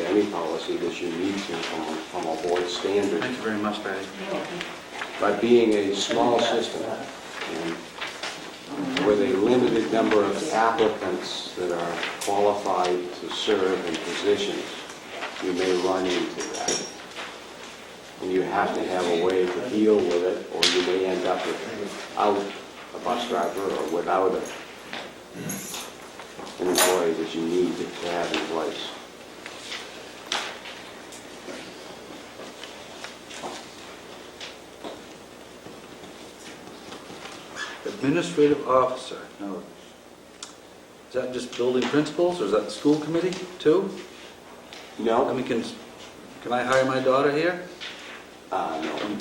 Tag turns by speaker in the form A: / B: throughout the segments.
A: any policy that you need to from, a- from a board standard
B: Thank you very much, Patty.
A: by being a small system and with a limited number of applicants that are qualified to serve in positions, you may run into that. And you have to have a way to deal with it, or you may end up without a bus driver or without a- an employee that you need to have in place.
B: Administrative officer, now, is that just building principals, or is that the school committee, too? I
A: No?
B: mean, can, can I hire my daughter here?
A: Uh, no.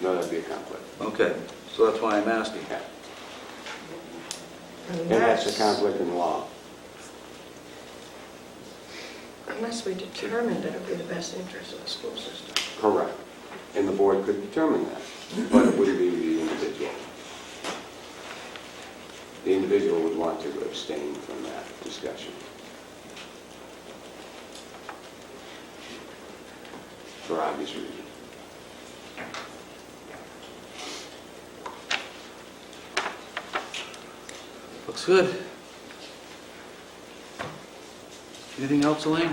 A: No, that'd be a conflict.
B: Okay, so that's why I'm asking.
A: Yeah. And that's a conflict in law.
C: Unless we determined that it would be the best interest of the school system.
A: Correct. And the board could determine that, but it wouldn't be the individual. The individual would want to abstain from that discussion. For obvious reasons.
B: Looks good. Anything else, Elaine?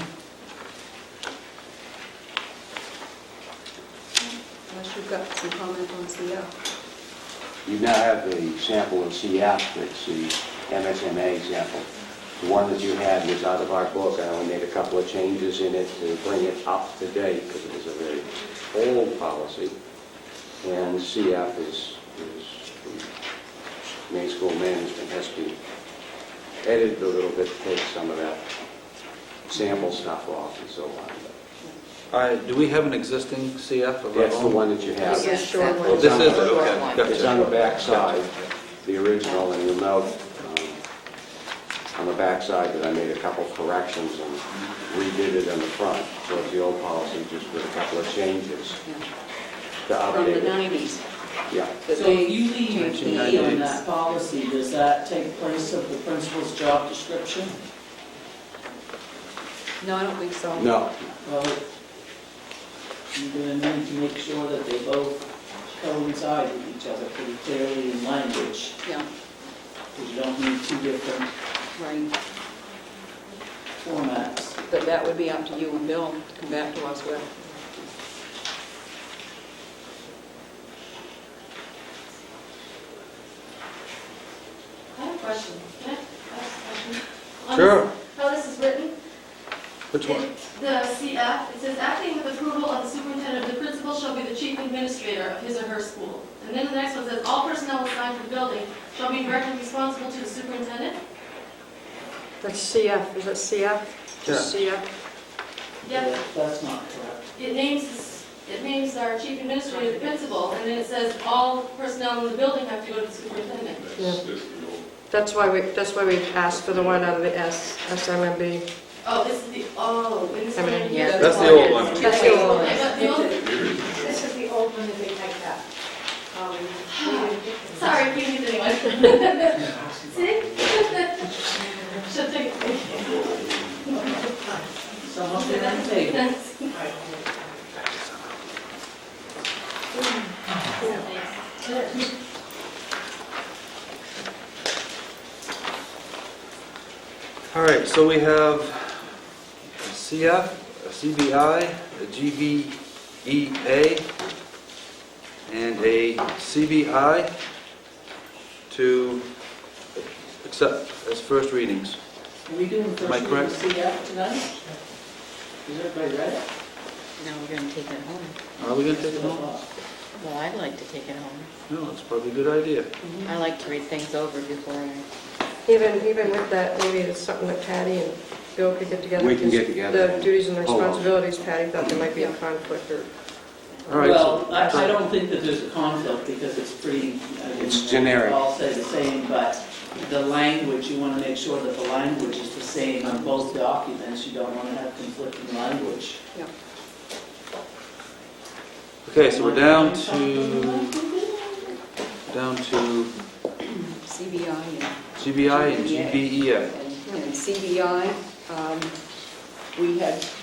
D: Unless you've got some comment on uh, CL.
A: You now have the sample of CF, that's the MSMA sample. The one that you had was out of our book, I only made a couple of changes in it to bring it up to date, because it was a very old policy. And CF is, is, main school management has to edit a little bit, take some of that sample stuff off and so on.
B: All right, do we have an existing CF of our own?
A: That's the one that you have.
C: This is short one.
A: Well, this is-
B: okay, gotcha.
A: It's on the back side, the original, and you'll note um, on the back side that I made a couple corrections and redid it on the front. So it's the old policy, just with a couple of changes to
D: From the
A: update it.
D: 90s.
A: Yeah,
D: that
E: So
D: they
E: if you leave
D: changed
E: an
D: in
E: E on
B: 1990s.
E: that policy, does that take place of the principal's job description?
D: No, I don't think so.
A: no,
E: Well, you're going to need to make sure that they both coincide with each other pretty clearly in language,
D: Yeah,
E: because you don't need two different
D: right.
E: formats.
D: But that would be up to you and Bill to come back to us with.
F: I have a question. Can I ask a question? On
B: Sure,
F: this- How this is written?
B: which one?
F: it- The CF, it says acting with approval of the superintendent, the principal shall be the chief administrator of his or her school. And then the next one says, all personnel assigned to the building shall be directly responsible to the superintendent.
C: That's CF, is that CF? Just CF?
F: Yet
E: That's not correct.
F: it names, this- it names our chief administrator the principal, and then it says all personnel in the building have to go to the superintendent.
C: That's why we, that's why we asked for the one out of the S, SMMB.
F: Oh, this is the, oh, and this
C: I mean,
F: one
D: yeah.
F: here.
B: That's the old one.
C: That's the old one.
F: Okay, but the old-
G: This is the old one that they typed up. Um, we didn't get them.
F: Sorry, if you need anyone. See? She'll take
E: Someone get on the table.
B: All right, so we have a CF, a CBI, a GBEA, and a CBI to accept as first readings.
E: Are we doing first
B: Am I
E: reading
B: correct?
E: CF tonight? Is everybody read it?
H: Now we're going to take it home.
B: Are we going to take it home?
H: Well, I'd like to take it home.
B: No, that's probably a good idea.
H: I like to read things over before I...
C: Even, even with that, maybe it's something that Patty and Bill could get together.
A: We can get
C: because
A: together
C: The
A: and-
C: duties and the
A: Hold on.
C: responsibilities, Patty thought there might be a conflict or
B: All right, so-
E: Well, I, I don't think that there's a conflict because it's pretty, I mean,
A: It's generic.
E: They all say the same, but the language, you want to make sure that the language is the same on both documents. You don't want to have conflicting language.
B: okay, so we're down to, down to
D: CBI and-
B: E GBI and GBEA.
D: and and CBI, um, we had